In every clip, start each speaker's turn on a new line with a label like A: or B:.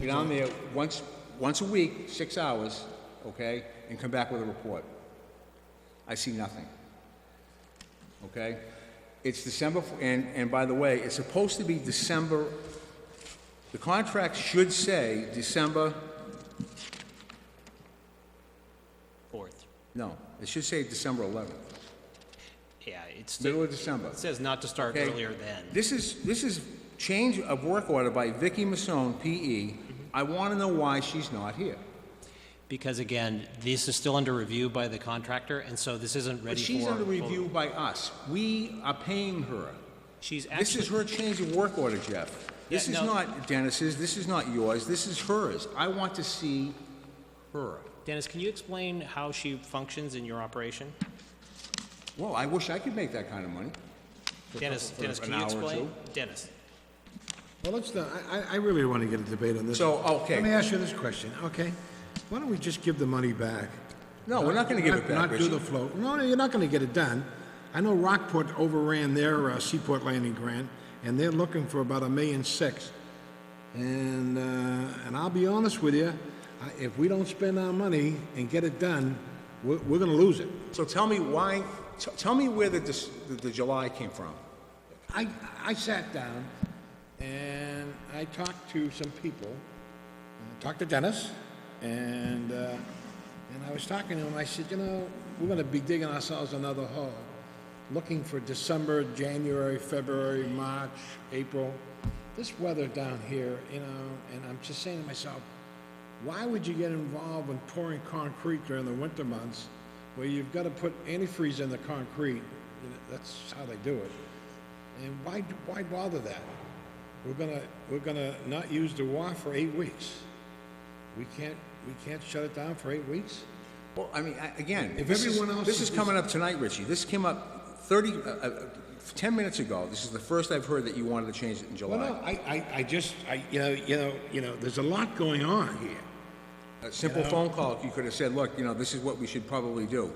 A: Get on there once, once a week, six hours, okay, and come back with a report. I see nothing. Okay? It's December, f- and, and by the way, it's supposed to be December, the contract should say December,
B: Fourth.
A: no, it should say December 11th.
B: Yeah, it's,
A: Middle
B: it
A: of December.
B: says not to start
A: Okay.
B: earlier than.
A: This is, this is change of work order by Vicky Masson, PE. I want to know why she's not here.
B: Because again, this is still under review by the contractor, and so this isn't
A: But
B: ready for.
A: she's under
B: full-
A: review by us. We are paying her.
B: She's
A: This is
B: actually,
A: her change of work order, Jeff. This is
B: Yeah, no.
A: not Dennis's, this is not yours, this is hers. I want to see her.
B: Dennis, can you explain how she functions in your operation?
A: Well, I wish I could make that kind of money.
B: Dennis,
A: for
B: Dennis,
A: an
B: can you
A: hour or
B: explain?
A: two.
B: Dennis,
C: Well, let's, not- I, I- I really want to get a debate on this.
A: So,
C: Let me
A: okay,
C: ask you this question, okay? Why don't we just give the money back?
A: no, we're not gonna give it back,
C: Not do the
A: Richie.
C: float. No, no, you're not going to get it done. I know Rockport overran their uh, Seaport Landing grant, and they're looking for about a million six. And, uh, and I'll be honest with you, I- if we don't spend our money and get it done, we're, we're going to lose it.
A: So tell me why, t- tell me where the, dis- the- the July came from.
C: I, I sat down and I talked to some people, I talked to Dennis, and, uh, and I was talking to him, I said, you know, we're gonna be digging ourselves another hole, looking for December, January, February, March, April. This weather down here, you know, and I'm just saying to myself, why would you get involved in pouring concrete during the winter months where you've gotta put antifreeze in the concrete? You know, That's how they do it. And why, why bother that? We're gonna, we're gonna not use the WA for eight weeks. We can't, we can't shut it down for eight weeks?
A: Well, I mean, I- again,
C: If
A: this is,
C: everyone else
A: this is
C: is-
A: coming up tonight, Richie. This came up 30, uh, uh, 10 minutes ago. This is the first I've heard that you wanted to change it in
C: Well, no,
A: July.
C: I, I, I just, I, you know, you know, you know, there's a lot going on here.
A: A simple phone call, you could have said, look, you know, this is what we should probably do.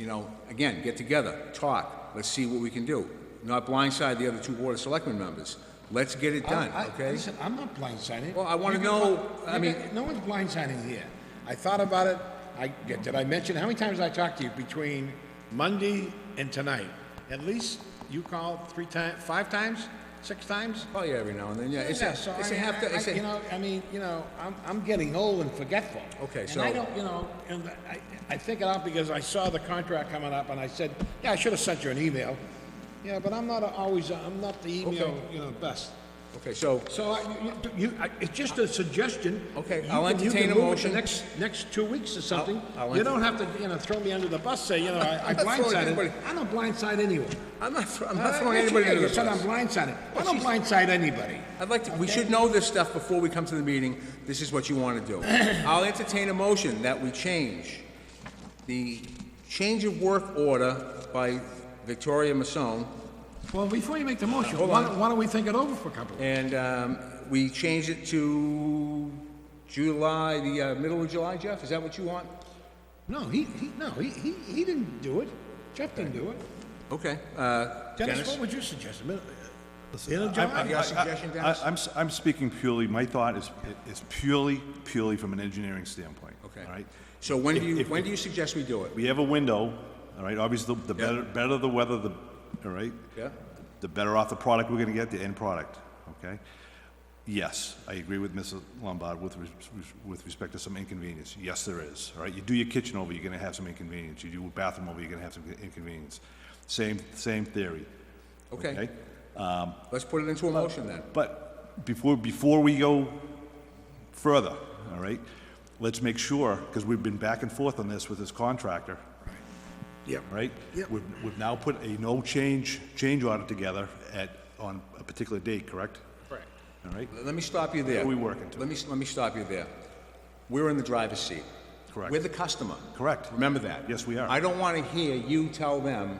A: You know, again, get together, talk, let's see what we can do. Not blindside the other two Board of Selectmen members. Let's get it done,
C: I- I-
A: okay?
C: Listen, I'm not blindsided.
A: Well, I wanna
C: You're gonna-
A: know- I
C: you're
A: mean-
C: gonna- No one's blindsiding here. I thought about it, I, did I mention, how many times I talked to you between Monday and tonight? At least you called three times, five times, six times?
A: Probably every now and then, yeah. It's a,
C: Yeah, so
A: it's a
C: I mean,
A: half,
C: I-
A: do-
C: I-
A: it's a-
C: you know, I mean, you know, I'm, I'm getting old and forgetful.
A: Okay,
C: And
A: so-
C: I don't, you know, and I, I think it out because I saw the contract coming up and I said, yeah, I should have sent you an email. Yeah, but I'm not always, I'm not the email,
A: Okay.
C: you know, best.
A: okay, so,
C: So I, you- you, I, it's just a suggestion.
A: Okay,
C: You
A: I'll
C: can- you
A: entertain
C: can
A: a
C: move it to
A: motion.
C: Next, next two weeks or something.
A: I'll
C: You don't have to, you know, throw me under the bus, say, you know, I I
A: I'm not throwing
C: blindsided.
A: anybody.
C: I don't blindside anyone.
A: I'm not, thro- I'm not
C: Uh,
A: throwing
C: yes, you
A: anybody
C: did.
A: under
C: You said I'm
A: the bus.
C: blindsided. I
A: Well,
C: don't
A: she's-
C: blindside anybody.
A: I'd like to, we should know this stuff before we come to the meeting. This is what you want to do. I'll entertain a motion that we change the change of work order by Victoria Masson
C: Well, before you make the motion, why don't, why don't we think it over for a couple?
A: And um, we change it to July, the uh, middle of July, Jeff? Is that what you want?
C: No, he, he, no, he, he, he didn't do it. Jeff didn't do it.
A: Okay. uh,
C: Dennis, what
A: Dennis?
C: would you suggest? Mid- End of
A: I-
C: July?
A: got a suggestion,
D: I-
A: Dennis?
D: I- I'm, s- I'm speaking purely, my thought is, is purely, purely from an engineering standpoint.
A: Okay.
D: All right?
A: So when do
D: If-
A: you,
D: if-
A: when do you suggest we do it?
D: We have a window, all right? Obviously, the- the
A: Yeah.
D: better, better the weather, the, all right?
A: Yeah?
D: The better off the product we're gonna get, the end product, okay? Yes, I agree with Mrs. Lombard with, res- with respect to some inconvenience. Yes, there is, all right? You do your kitchen over, you're gonna have some inconvenience. You do a bathroom over, you're gonna have some inconvenience. Same, same theory.
A: Okay. Let's put it into a motion then.
D: But before, before we go further, all right, let's make sure, because we've been back and forth on this with this contractor,
C: Yep.
D: right? We've, we've now put a no change, change order together at, on a particular date, correct?
B: correct.
D: All right,
A: Let me stop you there.
D: What are we working to?
A: Let me, let me stop you there. We're in the driver's seat.
D: Correct.
A: We're the customer.
D: Correct.
A: Remember that.
D: Yes, we are.
A: I don't want to hear you tell them,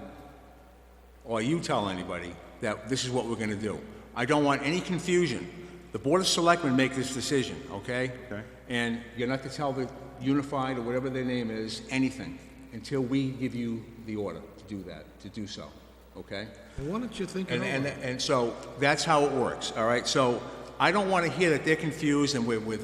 A: or you tell anybody, that this is what we're going to do. I don't want any confusion. The Board of Selectmen make this decision, okay?
D: Okay.
A: And you're not to tell the Unified or whatever their name is, anything, until we give you the order to do that, to do so, okay?
C: Why don't you think it
A: And, and,
C: over?
A: and so that's how it works, all right? So I don't want to hear that they're confused and we're, we're